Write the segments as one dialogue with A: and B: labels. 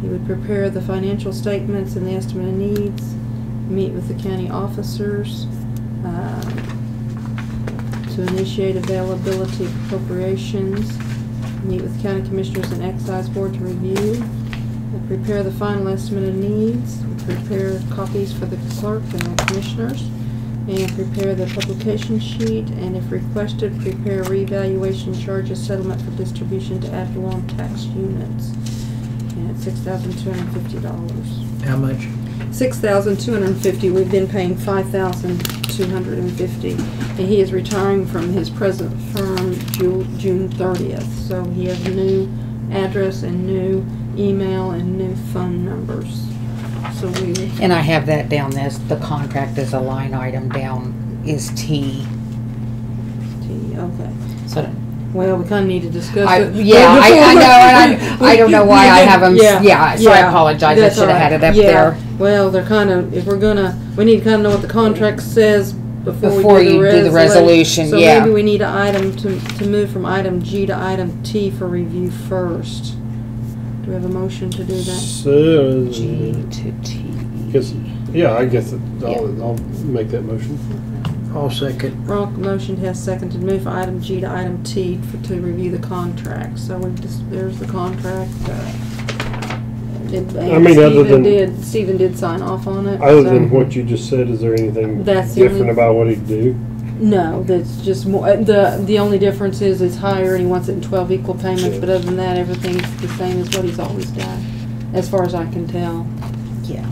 A: He would prepare the financial statements and the estimate of needs, meet with the county officers, um, to initiate availability of appropriations, meet with county commissioners and excise board to review, and prepare the final estimate of needs, prepare copies for the clerk and the commissioners, and prepare the publication sheet, and if requested, prepare revaluation charges settlement for distribution to ad valorem tax units. And it's six thousand two hundred and fifty dollars.
B: How much?
A: Six thousand two hundred and fifty, we've been paying five thousand two hundred and fifty. And he is retiring from his present firm Ju- June thirtieth, so he has a new address and new email and new phone numbers. So we,
C: And I have that down as, the contract as a line item down is T,
A: okay.
C: so.
A: Well, we kinda need to discuss
C: I,
A: it.
C: yeah, I, I know, and I, I don't know why I have them, yeah, so I
A: yeah,
C: apologize, I
A: that's
C: should have
A: all
C: had
A: right.
C: it up
A: Yeah.
C: there.
A: Well, they're kinda, if we're gonna, we need to kinda know what the contract says before we do the resolution.
C: Before you do the resolution, yeah.
A: So maybe we need an item to, to move from item G to item T for review first. Do we have a motion to do that?
D: So,
C: G to T.
D: uh, guess, yeah, I guess it- I'll,
C: Yeah.
D: I'll make that motion.
B: I'll second.
A: Ronk motion has seconded, move from item G to item T for, to review the contract, so we just, there's the contract, uh. it-
D: I mean, other
A: Stephen
D: than-
A: did, Stephen did sign off on it.
D: Other
A: so-
D: than what you just said, is there anything
A: um, That's the only-
D: different about what he'd do?
A: No, that's just more, uh, the, the only difference is it's higher and he wants it in twelve equal payments, but other than that, everything's the same as what he's always done, as far as I can tell.
C: Yeah.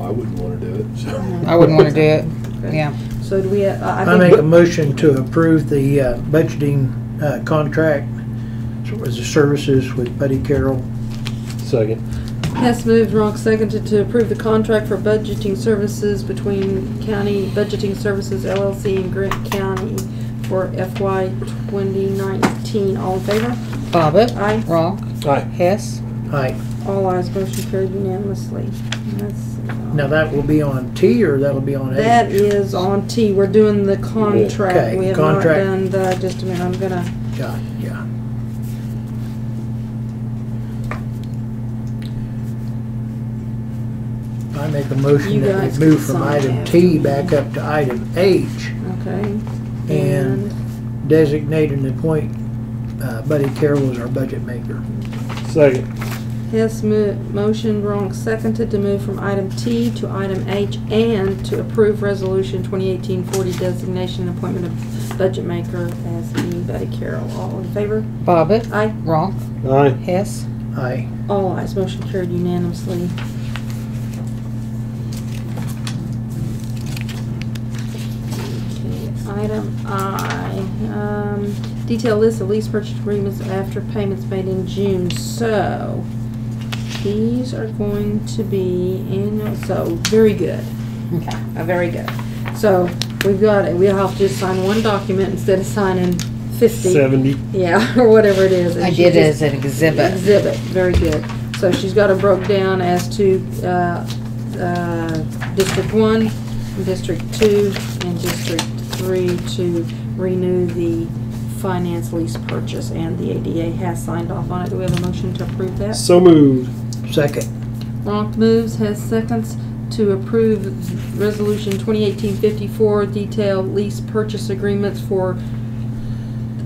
E: I wouldn't wanna do it, so.
C: I wouldn't wanna do it, yeah.
A: So do we, uh, I
B: I
A: I
B: make a
A: think,
B: motion to approve the uh, budgeting uh, contract as far as the services with Buddy Carroll.
D: Second.
A: Hess moved, Ronk seconded to approve the contract for budgeting services between County Budgeting Services LLC and Grant County for FY twenty nineteen. All in favor?
C: Bobbit,
A: Aye.
C: Ronk,
D: Aye.
C: Hess,
B: Aye.
A: All ayes, motion carried unanimously. And that's, uh,
B: Now that will be on T or that'll be on A?
A: That is on T, we're doing the contract,
B: Okay,
A: we have not
B: contract.
A: done the, just a minute, I'm gonna,
B: Yeah, yeah. I make a
A: You
B: motion that
A: guys
B: we move
A: can
B: from
A: sign
B: item
A: that.
B: T back up to item H,
A: okay?
B: And- designate and appoint uh, Buddy Carroll as our budget maker.
D: Second.
A: Hess mo- motion, Ronk seconded to move from item T to item H and to approve resolution 2018-40 designation and appointment of budget maker as the Buddy Carroll. All in favor?
C: Bobbit,
A: Aye.
C: Ronk,
D: Aye.
C: Hess,
B: Aye.
A: All ayes, motion carried unanimously. Okay, Item I, um, detailed list of lease purchase agreements after payments made in June, so these are going to be in, so, very good,
C: okay,
A: uh, very good. So, we've got, it. we'll have to just sign one document instead of signing fifty.
D: Seventy.
A: Yeah, or whatever it is. and
C: I
A: she
C: did it
A: just-
C: as an exhibit.
A: Exhibit, very good. So she's got it broke down as to, uh, uh, District One, District Two, and District Three to renew the finance lease purchase, and the ADA has signed off on it. Do we have a motion to approve that?
D: So moved.
B: Second.
A: Ronk moves, has seconds to approve Resolution 2018-54, detailed lease purchase agreements for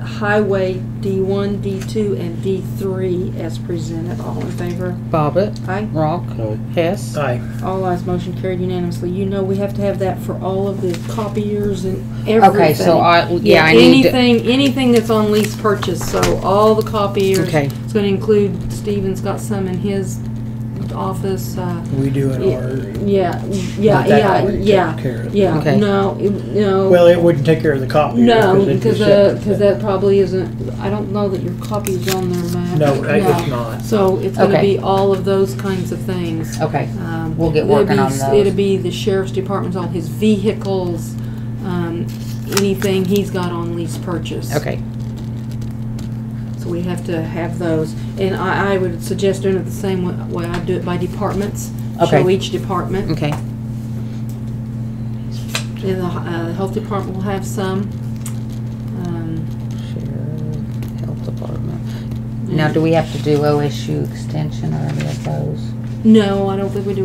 A: Highway D1, D2, and D3 as presented. All in favor?
C: Bobbit,
A: Aye.
C: Ronk,
D: Aye.
C: Hess,
B: Aye.
A: All ayes, motion carried unanimously. You know we have to have that for all of the copiers and everything.
C: okay, so I, yeah, I need to,
A: Anything, anything that's on lease purchase, so all the copiers.
C: okay,
A: It's gonna include, Steven's got some in his office, uh,
B: We do an
A: Yeah,
B: order.
A: Yeah, yeah,
B: But that
A: yeah,
B: already took
A: yeah,
B: care of it.
A: yeah.
C: Okay.
A: No, it, no.
B: Well, it wouldn't take care of the copy.
A: no,
B: it's
A: because
B: a
A: uh,
B: separate
A: because
B: thing.
A: that probably isn't. I don't know that your copy's on there, Matt.
B: No, it's not.
A: So it's going to
C: Okay.
A: be all of those kinds of things.
C: okay.
A: Um,
C: We'll get
A: it'll
C: working
A: be-
C: on those.
A: It'll be the sheriff's department's all his vehicles, um, anything he's got on lease purchase.
C: Okay,
A: So we have to have those, and I, I would suggest doing it the same way, way I do it by departments. Show
C: Okay.
A: each department.
C: okay,
A: And the uh, health department will have some. Um,
C: Sheriff, Health Department. Now, do we have to do OSU extension or any of those?
A: No, I don't think we do